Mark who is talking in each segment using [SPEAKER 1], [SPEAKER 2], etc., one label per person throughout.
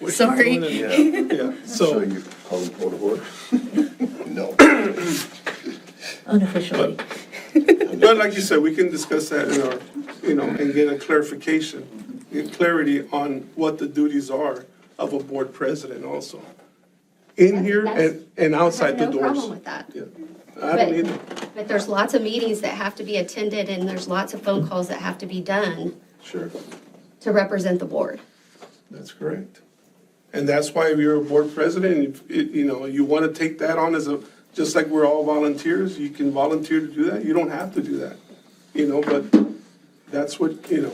[SPEAKER 1] What are you
[SPEAKER 2] Sorry.
[SPEAKER 1] doing in-
[SPEAKER 3] Yeah,
[SPEAKER 1] Yeah,
[SPEAKER 3] so
[SPEAKER 1] so,
[SPEAKER 3] you call the board of order? No.
[SPEAKER 2] unofficially.
[SPEAKER 1] but like you said, we can discuss that in our, you know, and get a clarification, get clarity on what the duties are of a board president also. In here and, and outside the
[SPEAKER 4] I have no
[SPEAKER 1] doors.
[SPEAKER 4] problem with that.
[SPEAKER 1] Yeah, I don't
[SPEAKER 4] But-
[SPEAKER 1] either.
[SPEAKER 4] But there's lots of meetings that have to be attended, and there's lots of phone calls that have to be done
[SPEAKER 3] Sure,
[SPEAKER 4] to represent the board.
[SPEAKER 3] that's correct.
[SPEAKER 1] And that's why if you're a board president, and if, it- you know, you want to take that on as a, just like we're all volunteers, you can volunteer to do that, you don't have to do that, you know, but that's what, you know,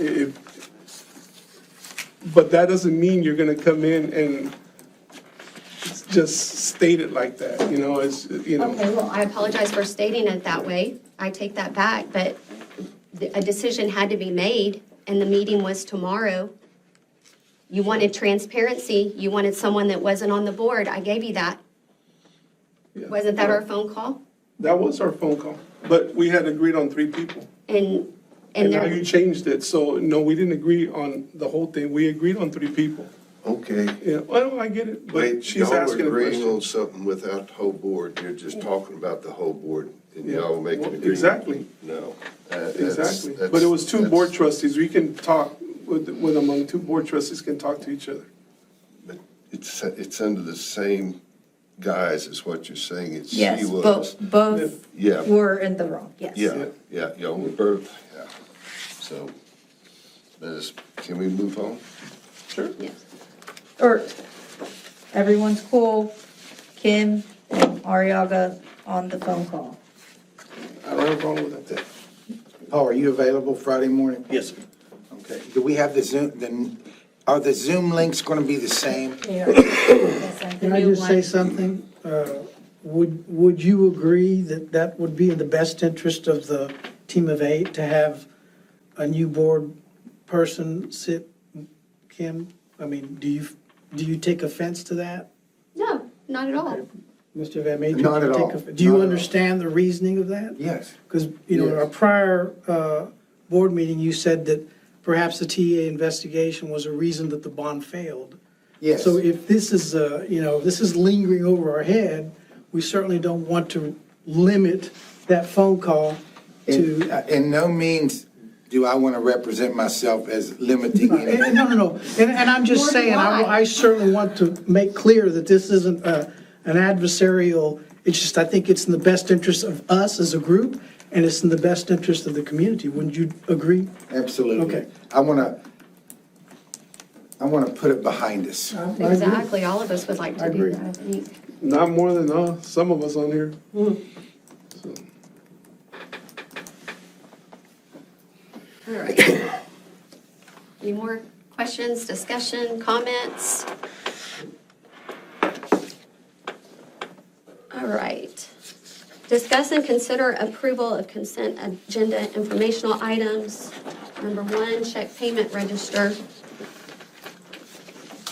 [SPEAKER 1] i- if, but that doesn't mean you're going to come in and just state it like that, you know, it's, you know.
[SPEAKER 4] Okay, well, I apologize for stating it that way. I take that back, but the- a decision had to be made, and the meeting was tomorrow. You wanted transparency, you wanted someone that wasn't on the board, I gave you that.
[SPEAKER 1] yeah.
[SPEAKER 4] Wasn't that our phone call?
[SPEAKER 1] That was our phone call, but we had agreed on three people.
[SPEAKER 4] And, and
[SPEAKER 1] And now you
[SPEAKER 4] there,
[SPEAKER 1] changed it, so no, we didn't agree on the whole thing, we agreed on three people.
[SPEAKER 5] Okay,
[SPEAKER 1] Yeah, well, I get it, but
[SPEAKER 5] wait,
[SPEAKER 1] she's
[SPEAKER 5] y'all
[SPEAKER 1] asking a
[SPEAKER 5] agreeing
[SPEAKER 1] question.
[SPEAKER 5] on something without the whole board, you're just talking about the whole board, and
[SPEAKER 1] Yeah,
[SPEAKER 5] y'all making
[SPEAKER 1] well,
[SPEAKER 5] agreement.
[SPEAKER 1] exactly.
[SPEAKER 5] No. uh, that's-
[SPEAKER 1] Exactly,
[SPEAKER 5] that's-
[SPEAKER 1] but it was two board
[SPEAKER 5] that's-
[SPEAKER 1] trustees, we can talk with, with among two board trustees can talk to each other.
[SPEAKER 5] but It's, it's under the same guise as what you're saying, it's she
[SPEAKER 2] Yes,
[SPEAKER 5] was.
[SPEAKER 2] both, both
[SPEAKER 5] Yeah.
[SPEAKER 2] were in the wrong, yes.
[SPEAKER 5] Yeah, yeah, y'all were both, yeah, so, let us, can we move on?
[SPEAKER 1] Sure.
[SPEAKER 4] yes.
[SPEAKER 2] Or, everyone's cool, Kim and Ariaga on the phone call.
[SPEAKER 1] I don't have a problem with that.
[SPEAKER 6] Paul, Oh, are you available Friday morning?
[SPEAKER 7] Yes, sir.
[SPEAKER 6] Okay. Do we have the Zoom, the, are the Zoom links going to be the same?
[SPEAKER 8] Can I just say something? Uh, Would, would you agree that that would be in the best interest of the team of eight to have a new board person sit, Kim? I mean, do you, do you take offense to that?
[SPEAKER 4] No, not at all.
[SPEAKER 8] Mr. Van Major?
[SPEAKER 6] Not at
[SPEAKER 8] take
[SPEAKER 6] all.
[SPEAKER 8] off- Do
[SPEAKER 6] Not
[SPEAKER 8] you
[SPEAKER 6] at all.
[SPEAKER 8] understand the reasoning of that?
[SPEAKER 6] Yes.
[SPEAKER 8] Because, you know, in our
[SPEAKER 6] Yes.
[SPEAKER 8] prior uh, board meeting, you said that perhaps the TA investigation was a reason that the bond failed.
[SPEAKER 6] Yes.
[SPEAKER 8] So if this is, uh, you know, this is lingering over our head, we certainly don't want to limit that phone call
[SPEAKER 6] In uh,
[SPEAKER 8] to,
[SPEAKER 6] in no means do I want to represent myself as limiting
[SPEAKER 8] And- and
[SPEAKER 6] anything.
[SPEAKER 8] no, no, no. And, and I'm
[SPEAKER 4] Nor
[SPEAKER 8] just
[SPEAKER 4] do
[SPEAKER 8] saying, I
[SPEAKER 4] I.
[SPEAKER 8] I certainly want to make clear that this isn't uh, an adversarial, it's just, I think it's in the best interest of us as a group, and it's in the best interest of the community. Wouldn't you agree?
[SPEAKER 6] Absolutely.
[SPEAKER 8] Okay.
[SPEAKER 6] I want to, I want to put it behind us.
[SPEAKER 4] Exactly, all of us would like to do
[SPEAKER 6] agree.
[SPEAKER 4] that, I think.
[SPEAKER 1] Not more than, uh, some of us on here. So,
[SPEAKER 4] All right. Any more questions, discussion, comments? All right. Discuss and consider approval of consent agenda informational items. Number one, check payment register.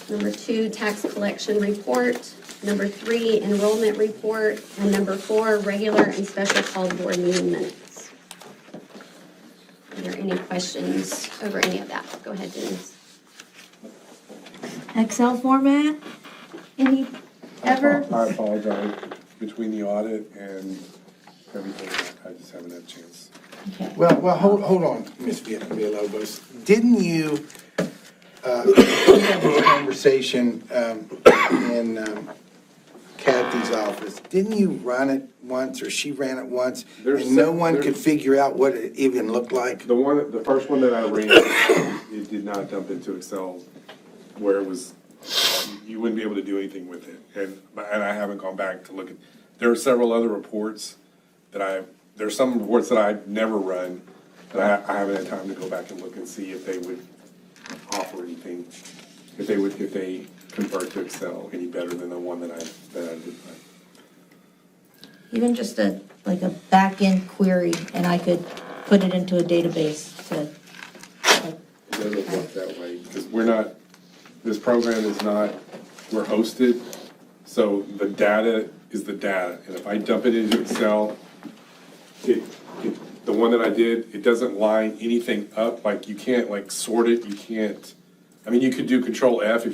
[SPEAKER 4] Number two, tax collection report. Number three, enrollment report. And number four, regular and special call board meeting minutes. Are there any questions over any of that? Go ahead, Denise.
[SPEAKER 2] Excel format, any, ever?
[SPEAKER 9] I apologize, between the audit and everything, I just haven't had a chance.
[SPEAKER 2] Okay.
[SPEAKER 6] Well, well, hold, hold on, Ms. Villalobos. Didn't you, uh, we had this conversation, um, in um, Kathy's office. Didn't you run it once, or she ran it once?
[SPEAKER 9] There's
[SPEAKER 6] And no
[SPEAKER 9] se-
[SPEAKER 6] one could
[SPEAKER 9] there's-
[SPEAKER 6] figure out what it even looked like?
[SPEAKER 9] The one, the first one that I ran, it did not dump into Excel where it was, you wouldn't be able to do anything with it. And, and I haven't gone back to look at, there are several other reports that I, there's some reports that I've never run, that I, I haven't had time to go back and look and see if they would offer anything, if they would, if they convert to Excel any better than the one that I, that I did run.
[SPEAKER 2] Even just a, like a back-end query, and I could put it into a database to, like,
[SPEAKER 9] It doesn't work that way, because we're not, this program is not, we're hosted, so the data is the data. And if I dump it into Excel, it, it, the one that I did, it doesn't line anything up, like you can't like sort it, you can't, I mean, you could do Control F if you